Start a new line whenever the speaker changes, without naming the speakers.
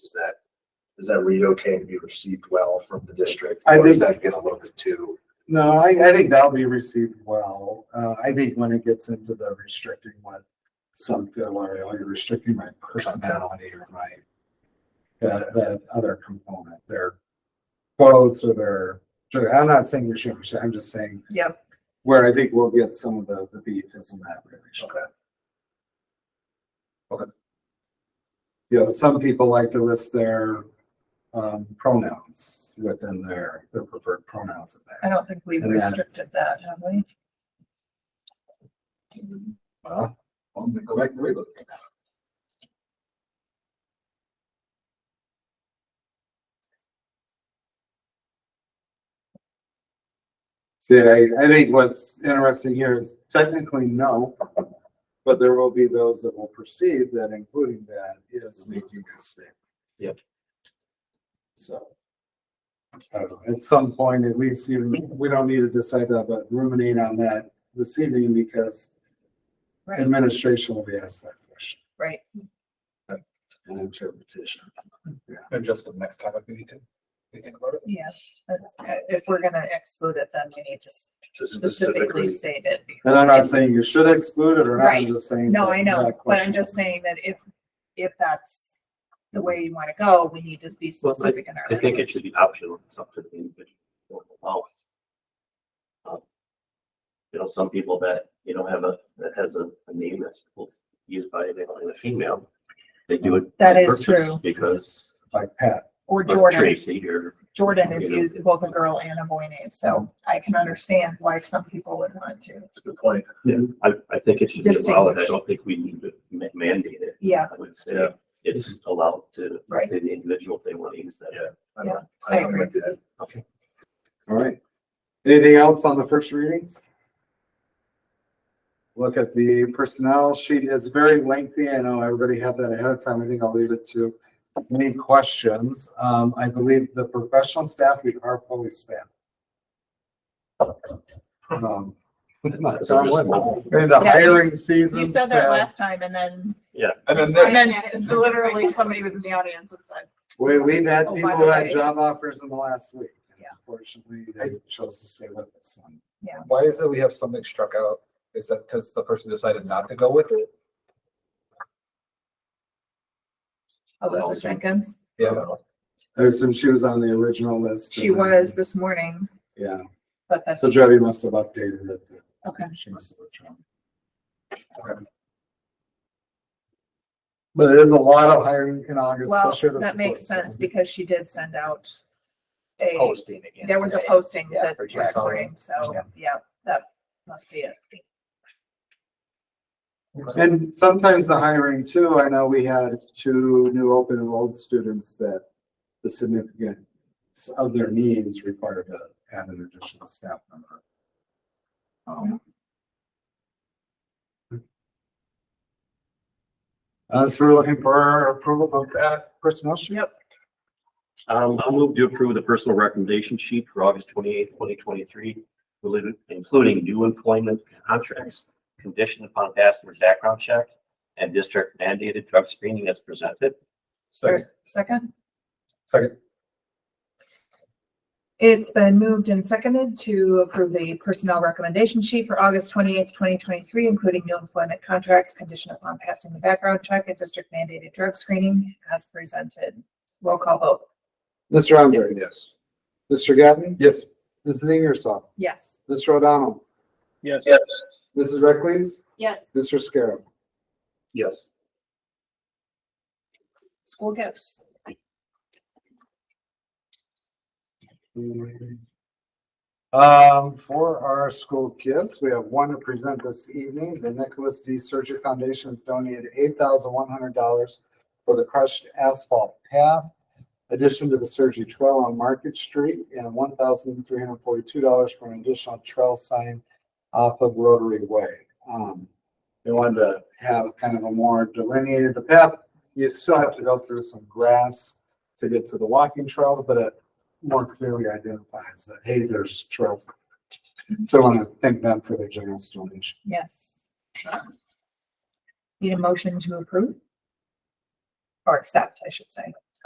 that, does that read okay and be received well from the district?
I
Or is
think-
that get a little bit too?
No, I, I think that'll be received well. Uh, I think when it gets into the restricting what some feel are, oh, you're restricting my personality or my that, that other component, their quotes or their, sure, I'm not saying we should, restrict, I'm just saying
Yep.
where I think we'll get some of the, the beef is in that relation.
Okay.
You know, some people like to list their, um, pronouns within their, their preferred pronouns in there.
I don't think we've
And then-
restricted that, have we?
Well, I'm gonna go back and relook.
See, I, I think what's interesting here is technically no, but there will be those that will perceive that including that is making a statement.
Yep.
So. I don't know, at some point, at least you, we don't need to decide that, but ruminate on that this evening because
Right,
administration will be asked that question
right.
and interpretation.
And just the next time if we need to, we think about it.
Yeah, that's, if we're gonna exclude it, then we need to
Just specifically,
specifically state it.
And I'm not saying you should exclude it or not, I'm
Right.
just saying.
No, I
that
know,
that
but
question-
I'm just saying that if, if that's the way you wanna go, we need to be
Well,
specific in our.
I think it should be optional, it's up to the individual. Um, You know, some people that, you know, have a, that has a, a name that's both used by a male and a female, they do it.
That
on
is
purpose
true.
Because
Like Pat,
Or
or
Jordan,
Tracy or,
Jordan is
You know.
used both a girl and a boy name, so I can understand why some people would want to.
it's a good point.
I, I think it should be allowed. I don't think we need to ma- mandate it.
Yeah,
I would say
Yeah.
it's allowed to,
Right.
to the individual if they want to use that.
Yeah. I
Yeah,
don't- I don't
agree.
like that.
All right. Anything else on the first readings? Look at the personnel sheet. It's very lengthy. I know everybody had that ahead of time. I think I'll leave it to any questions. Um, I believe the professional staff, we are fully staffed. Um,
Because I'm just-
In the
Yeah, you-
hiring season.
you said that
staff,
last time and then,
And then
and
this,
then literally somebody was in the audience and said,
We, we've had
Oh, by
people
the
had
way.
job offers in the last week.
Yeah.
Unfortunately, they chose to stay with us. on-
Yeah.
why is it we have something struck out? Is that because the person decided not to go with it?
Alyssa Jenkins,
Yeah.
I assume oh, she was on the original list.
she
and then-
was this morning,
Yeah.
but that's,
So Jody must have updated it. then.
okay.
She must have withdrawn. Okay. But it is a lot of hiring in August,
Well,
especially the.
that makes
support
sense
staff.
because she did send out a,
posting again.
there was a
today.
posting
Yeah,
that
for
Jack
Jackson.
Spring, so, yeah, that must be it.
And sometimes the hiring too, I know we had two new open enrolled students that the significance of their needs required to add an additional staff member. Um, Uh, so we're looking for approval of that personnel sheet.
Yep.
Um, I'll move to approve the personal recommendation sheet for August twenty-eighth, twenty twenty-three, related, including new employment contracts, conditioned upon passing the background checks and district mandated drug screening as presented.
Second,
There's- Second,
second,
it's been moved and seconded to approve the personnel recommendation sheet for August twenty-eighth, twenty twenty-three, including new employment contracts conditioned upon passing the background check and district mandated drug screening as presented. Roll call vote,
Mr. Andre,
yes.
Mr. Gatton,
Yes.
Mrs. Ingersoll,
yes.
Mr. O'Donnell,
Yes.
Mrs. Reckles,
Yes.
Mr. Scarrow.
Yes.
School gifts.
Um, for our school gifts, we have one to present this evening. The Nicholas D. Surgery Foundation has donated eight thousand one hundred dollars for the crushed asphalt path, addition to the surgery trail on Market Street, and one thousand three hundred forty-two dollars for an additional trail sign off of Rotary Way. Um, they wanted to have kind of a more delineated, the path, you still have to go through some grass to get to the walking trails, but it more clearly identifies that, hey, there's trails. So I want to thank them for their generous donation.
Yes. Need a motion to approve? Or accept, I should say.